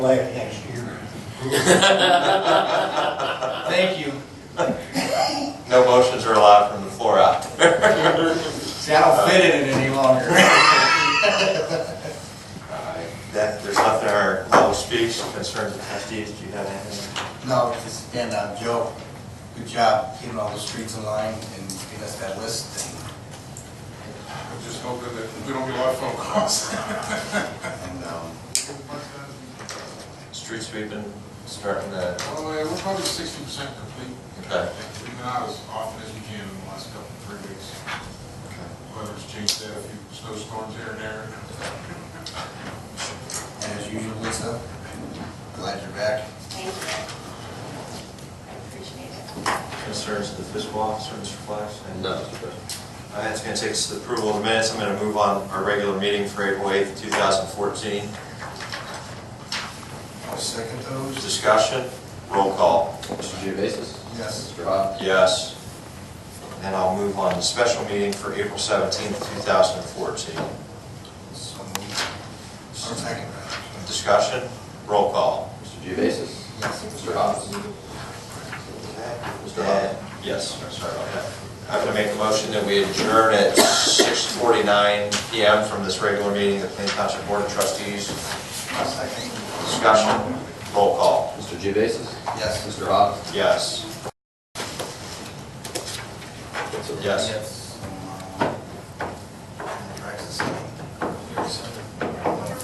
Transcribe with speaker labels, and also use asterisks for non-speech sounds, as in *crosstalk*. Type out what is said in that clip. Speaker 1: last next year.
Speaker 2: Thank you.
Speaker 3: No motions are allowed from the floor out.
Speaker 2: *laughs* See, I don't fit in it any longer.
Speaker 3: *laughs* Alright, That, there's nothing in our level of speech concerns the trustees, do you have anything?
Speaker 4: No, just again, uh, Joe, good job keeping all the streets in line and giving us that list.
Speaker 5: I'm just hoping that we don't get a lot of phone calls.
Speaker 4: And um,
Speaker 3: Street sweeping, starting the,
Speaker 5: Well, yeah, we're probably sixty percent complete.
Speaker 3: Okay.
Speaker 5: We've been out as often as we can in the last couple, three weeks. Weather's changed that, a few snowstorms here and there.
Speaker 4: and as usual, Lisa, glad you're back.
Speaker 6: Thank you. I appreciate it.
Speaker 3: concerns of the fiscal officer, Mr. Flash? No. Alright, that's gonna take us to the approval of the minutes, I'm gonna move on our regular meeting for April eighth, two thousand fourteen.
Speaker 4: I'll second those.
Speaker 3: Discussion, roll call,
Speaker 7: Mr. Geovasis?
Speaker 4: Yes.
Speaker 7: Mr. Hawes?
Speaker 3: yes. And I'll move on to special meeting for April seventeenth, two thousand fourteen.
Speaker 4: So moved. I'll second that.
Speaker 3: Discussion, roll call.
Speaker 7: Mr. Geovasis?
Speaker 4: Yes.
Speaker 7: Mr. Hawes? Mr. Hawes?
Speaker 3: Yes, sorry about that. I'm going to make a motion that we adjourn at 6:49 PM from this regular meeting of the Plain Township Board of Trustees.
Speaker 4: I'll second.
Speaker 3: Discussion, roll call,
Speaker 7: Mr. Geovasis?
Speaker 4: Yes.
Speaker 7: Mr. Hawes?
Speaker 3: yes. Yes.
Speaker 2: Yes.
Speaker 4: Um,